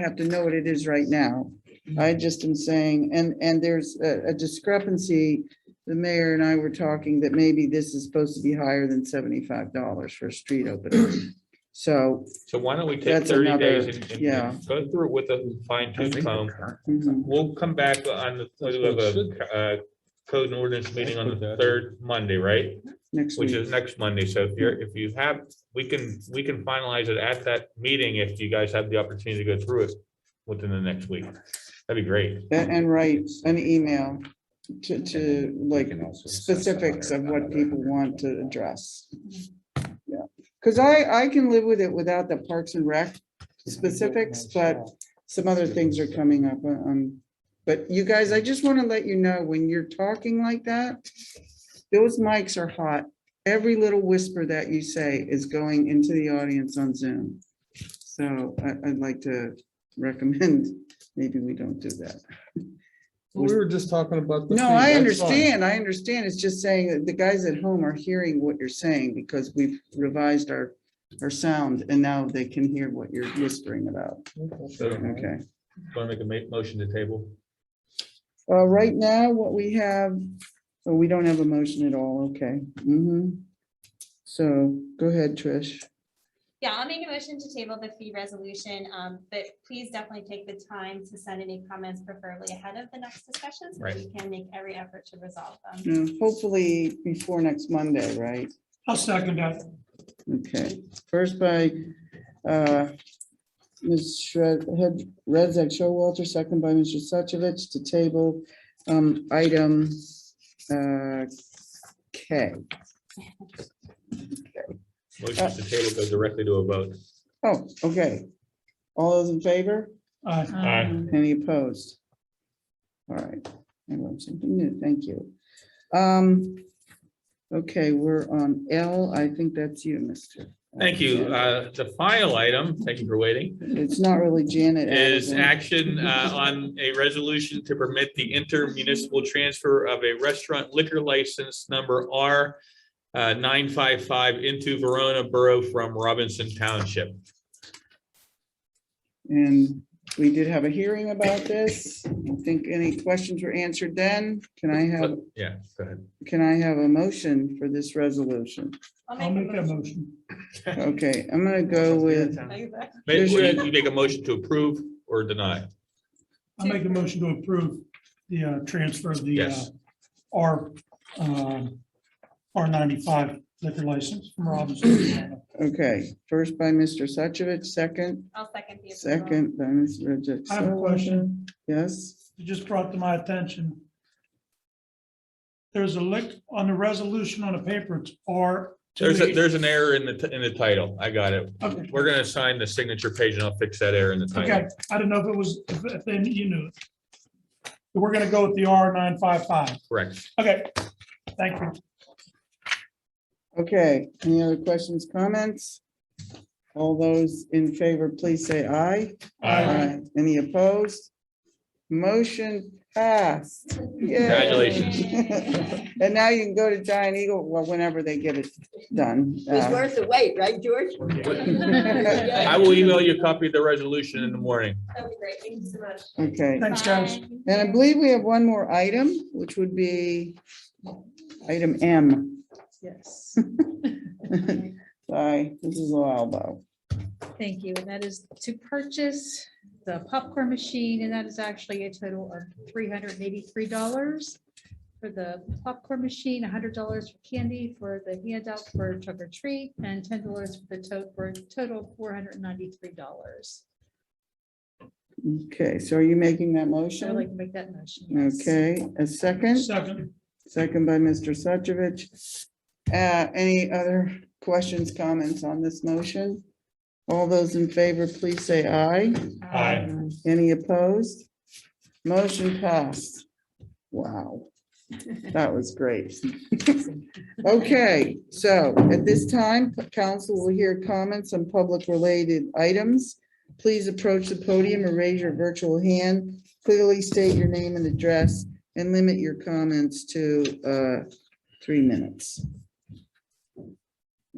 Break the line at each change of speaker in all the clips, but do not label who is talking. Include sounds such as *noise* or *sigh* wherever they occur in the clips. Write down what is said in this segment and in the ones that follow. have to know what it is right now. I just am saying, and, and there's a a discrepancy. The mayor and I were talking that maybe this is supposed to be higher than seventy-five dollars for a street opener. So,
So why don't we take
That's
thirty
another-
days and- and
yeah.
and go through it with a fine
I
tooth
think
comb?
they're current.
mhm,
We'll come back on the,
That's
we'll have
what it
a, uh, code and ordinance meeting on the
That's what that is.
third Monday, right?
next
Which
week,
is next Monday. So if you're, if you have, we can, we can finalize it at that meeting if you guys have the opportunity to go through it within the next week. That'd be great.
That- and write an email to, to like specifics of what people want to address. Yeah, because I, I can live with it without the Parks and Rec specifics, but some other things are coming up. Um, but you guys, I just want to let you know, when you're talking like that, those mics are hot. Every little whisper that you say is going into the audience on Zoom. So I, I'd like to recommend, *laughs* maybe we don't do that.
We were just talking about. the
No,
thing,
I
that's fine.
understand, I understand. It's just saying that the guys at home are hearing what you're saying because we've revised our, our sound and now they can hear what you're whispering about.
So,
Okay.
want to make a ma- motion to table?
Uh, right now, what we have, oh, we don't have a motion at all, okay. Mhm. So go ahead, Trish.
Yeah, I'll make a motion to table the fee resolution, um, but please definitely take the time to send any comments preferably ahead of the next discussion. so
Right.
We can make every effort to resolve them.
Yeah, Mm, Hopefully before next Monday, right?
I'll second that.
Okay, first by uh, Ms. Shred, Head, Redzak Showalter, second by Mr. Suchovich to table um, item uh, K. Uh,
Motion to table goes directly to a vote.
Oh, okay. All those in favor?
Aye.
Aye.
Any opposed? All right, I learned something new, thank you. Um, okay, we're on L, I think that's you, Mr.
Thank you. Uh, The final item, thank you for waiting.
It's not really Janet.
is
Allison.
action uh, on a resolution to permit the intermunicipal transfer of a restaurant liquor license number R uh, nine five five into Verona Borough from Robinson Township.
And we did have a hearing about this. I think any questions were answered then. Can I have,
Yeah, go ahead.
can I have a motion for this
*laughs*
resolution?
I'll make that motion.
Okay, I'm gonna go with,
Exactly.
Maybe you you make a motion to approve or deny.
I'll make a motion to approve the uh, transfer of the uh,
Yes.
R, um, R ninety-five liquor license from Robinson.
okay, first by Mr. Suchovich, second,
I'll second the. approval. *laughs*
second by Ms. Rejec.
I have a question.
Yes?
It just brought to my attention. There's a lick on the resolution on the paper, it's R.
There's, a- there's an error in the, t- in the title. I got it.
Okay,
We're gonna assign the signature page and I'll fix that error in the
okay.
title.
I didn't know if it was, if- if then you knew. it. We're gonna go with the R nine five five.
Correct.
Okay, thank you.
Okay, any other questions, comments? All those in favor, please say aye.
Aye.
Any opposed? Motion passed. Yay. *laughs*
Congratulations.
And now you can go to Giant Eagle, well, whenever they get it done.
It's
Uh,
worth the wait, right, George?
I will email you a copy of the resolution in the morning.
That would be great. Thank you so much.
Okay,
Thanks, guys.
Bye.
and I believe we have one more item, which would be item M. *laughs*
Yes,
Sorry, this is a while though.
thank you. And that is to purchase the popcorn machine, and that is actually a total of three hundred and eighty-three dollars for the popcorn machine, hundred dollars for candy for the handout for trick or treat, and ten dollars for the tote, for a total four hundred and ninety-three dollars.
Okay, so are you making that
So I'd like
motion?
to make that motion. yes.
Okay, a second?
Second.
Second by Mr. Suchovich. Uh, Any other questions, comments on this motion? All those in favor, please say aye.
Aye.
Any opposed? Motion passed. Wow, that was great. Okay, so at this time, council will hear comments on public related items. Please approach the podium or raise your virtual hand. Clearly state your name and address and limit your comments to uh, three minutes.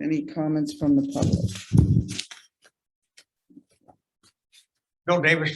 Any comments from the public?
Bill Davis,